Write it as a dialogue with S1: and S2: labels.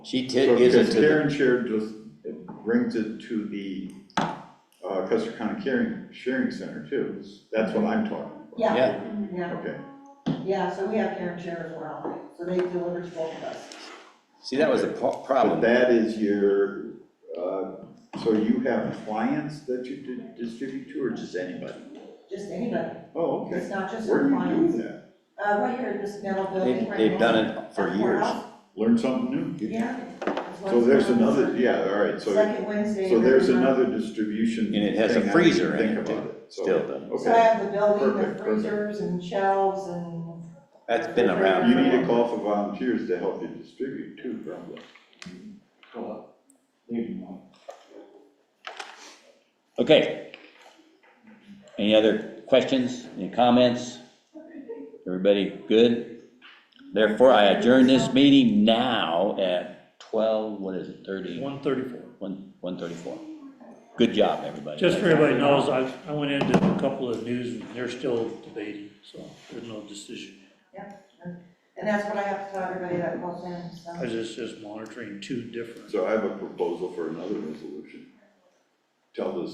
S1: She
S2: So,
S1: ta- gives it
S2: because
S1: to the,
S2: Karen shared just, brings it to the, uh, Custer County Caring, Sharing Center too, that's what I'm talking about.
S3: Yeah,
S1: yeah,
S3: yeah,
S2: Okay,
S3: yeah, so we have Karen Share as well, so they deliver to both of us.
S1: see, that was a po-
S2: but
S1: problem.
S2: that is your, uh, so you have clients that you di- distribute to, or just anybody?
S3: Just anybody,
S2: Oh,
S3: it's
S2: okay,
S3: not just
S2: where
S3: for
S2: do you do
S3: clients.
S2: that?
S3: Uh, right here in this metal
S1: They've,
S3: building right now.
S1: they've done it for
S3: At
S1: years.
S3: courthouse,
S2: Learn something new?
S3: Yeah. It's
S2: So
S3: once
S2: there's
S3: a month.
S2: another, yeah, all right, so,
S3: Second Wednesday.
S2: so
S3: of every
S2: there's
S3: month.
S2: another distribution
S1: And it has a
S2: thing I
S1: freezer
S2: didn't
S1: in
S2: think
S1: it,
S2: about so,
S1: still done.
S3: So I
S2: Okay,
S3: have the building,
S2: Perfect,
S3: the
S2: perfect.
S3: freezers and shelves and,
S1: That's been around.
S2: you
S1: for a
S2: need
S1: while.
S2: a call for volunteers to help you distribute too, probably.
S4: Well, maybe not.
S1: Okay. Any other questions, any comments? Everybody good? Therefore, I adjourn this meeting now at twelve, what is it, thirty,
S5: One thirty-four.
S1: one, one thirty-four. Good job, everybody.
S5: Just for everybody knows, I, I went into a couple of news, and they're still debating, so there's no decision.
S3: and that's what I have to tell everybody that goes in, so.
S5: I was just, just monitoring two different.
S2: So I have a proposal for another resolution. Tell the